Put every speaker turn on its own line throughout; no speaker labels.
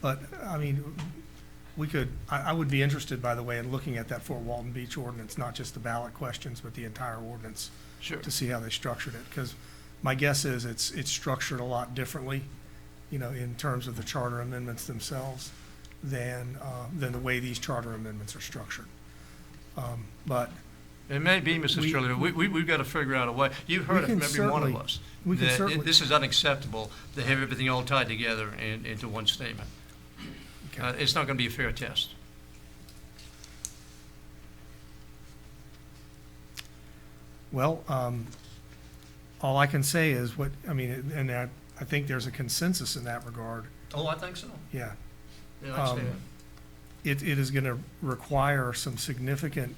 But, I mean, we could, I, I would be interested, by the way, in looking at that Fort Walton Beach ordinance, not just the ballot questions, but the entire ordinance,
Sure.
to see how they structured it, because my guess is it's, it's structured a lot differently, you know, in terms of the charter amendments themselves than, uh, than the way these charter amendments are structured. Um, But
It may be, Mrs.
We-
Shirley, we, we, we've got to figure out a way. You've
We
heard it
can
from every one of
certainly-
us.
we can
that it-
certainly-
This is unacceptable, to have everything all tied together in, into one statement.
Okay.
Uh, it's not going to be a fair test.
Well, um, all I can say is what, I mean, and I, I think there's a consensus in that regard,
Oh, I think so.
yeah.
Yeah, I see
Um, It, it is gonna require some significant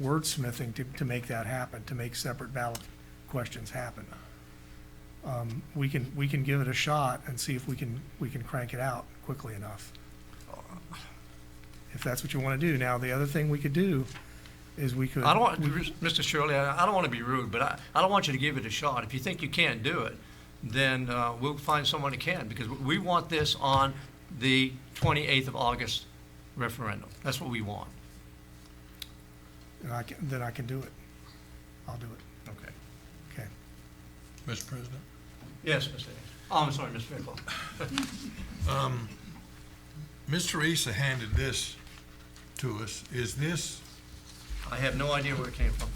wordsmithing to, to make that happen, to make separate ballot questions happen. Um, we can, we can give it a shot and see if we can, we can crank it out quickly enough. If that's what you wanna do. Now, the other thing we could do is we could.
I don't want,
we-
Mr. Shirley, I I don't want to be rude, but I, I don't want you to give it a shot. If you think you can't do it, then uh, we'll find someone who can, because we want this on the 28th of August referendum. That's what we want.
And I can, then I can do it. I'll do it,
Okay.
okay.
Mr. President?
Yes, Mr. Hayes. Oh, I'm sorry, Mr. Fairclough.
Mr. Issa handed this to us. Is this,
I have no idea where it came from.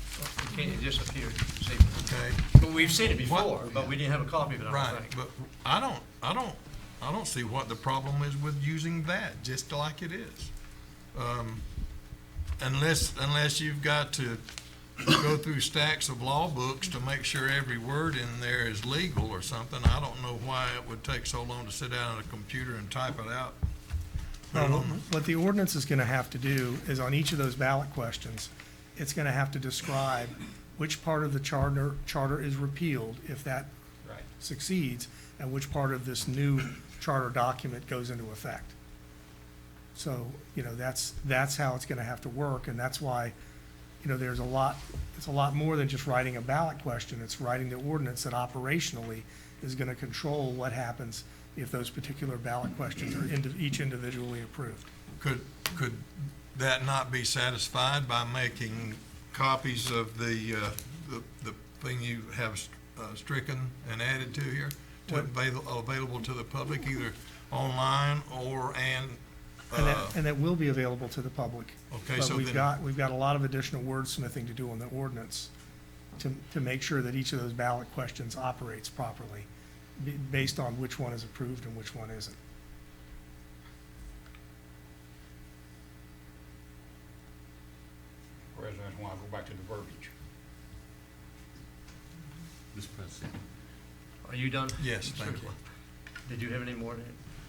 It came- It disappeared. this evening.
okay,
But We've seen it before, but we didn't have a copy of it, I
right,
don't think.
but I don't, I don't, I don't see what the problem is with using that, just like it is. Um, Unless, unless you've got to go through stacks of law books to make sure every word in there is legal or something. I don't know why it would take so long to sit down at a computer and type it out. Put it
Well,
on
What the ordinance is gonna have to do is on each of those ballot questions, it's gonna have to describe which part of the charter, charter is repealed if that succeeds, and which part of this new charter document goes into effect. So, you know, that's, that's how it's gonna have to work, and that's why, you know, there's a lot, it's a lot more than just writing a ballot question. It's writing the ordinance that operationally is gonna control what happens if those particular ballot questions are indi- each individually approved.
Could, could that not be satisfied by making copies of the, uh, the, the thing you have uh, stricken and added to here? To
What-
avail, available to the public either online or and,
And
uh,
that, and that will be available to the public.
Okay,
But
so
we've
then-
got, we've got a lot of additional wordsmithing to do on the ordinance to, to make sure that each of those ballot questions operates properly, be- based on which one is approved and which one isn't.
Whereas that's why I go back to the verbiage.
Mr. President.
Are you done?
yes,
Mr.
thank you.
Fairclough? Did you have any more? to-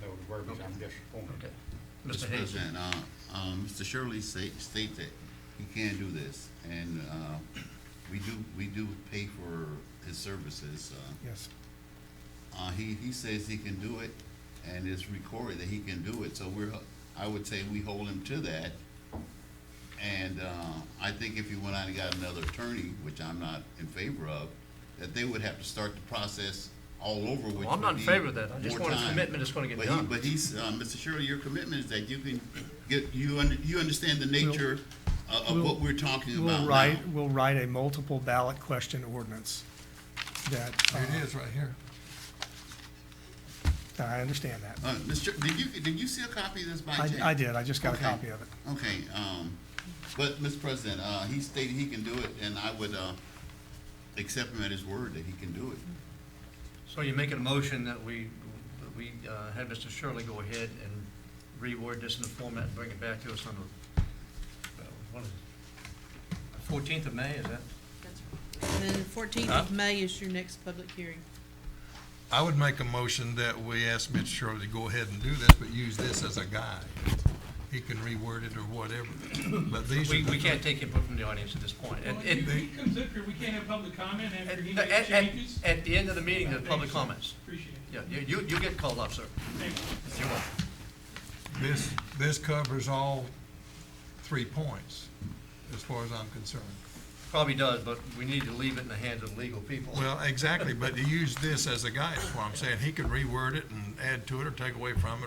That was the verbiage, I'm disappointed.
Okay. Mr. Hayes?
President, uh, um, Mr. Shirley say, states that he can't do this, and, uh, we do, we do pay for his services, uh,
Yes.
Uh, he, he says he can do it, and it's recorded that he can do it, so we're, I would say we hold him to that. And, uh, I think if he went out and got another attorney, which I'm not in favor of, that they would have to start the process all over, which would be
Well, I'm not in favor of that. I just
more
want a
time.
commitment that's gonna get
But he-
done.
But he's, uh, Mr. Shirley, your commitment is that you can get, you under, you understand the nature of, of
we'll-
what we're talking about now.
We'll write, we'll write a multiple ballot question ordinance that, uh,
Here it is, right here.
I understand that.
Uh, Mr., did you, did you see a copy of this by chance?
I, I did, I just got a
Okay.
copy of it.
Okay, um, but, Mr. President, uh, he stated he can do it, and I would, uh, accept him at his word that he can do it.
So you're making a motion that we, that we uh, have Mr. Shirley go ahead and reword this in the format and bring it back to us on the, uh, what is it? 14th of May, is that?
And then fourteenth of May is your next public hearing.
I would make a motion that we ask Mitch Shirley to go ahead and do this, but use this as a guide. He can reword it or whatever, but these are
We,
the
we can't take input from the audience at this point. At-
Well,
at-
if he he comes up here, we can't have public comment after he
At, at-
makes
at-
changes.
at the end of the meeting, the public comments.
Appreciate it.
Yeah, you, you- you get called up, sir.
Thank you.
You're welcome.
This, this covers all three points, as far as I'm concerned.
Probably does, but we need to leave it in the hands of legal people.
Well, exactly, but to use this as a guide, is what I'm saying. He could reword it and add to it or take away from it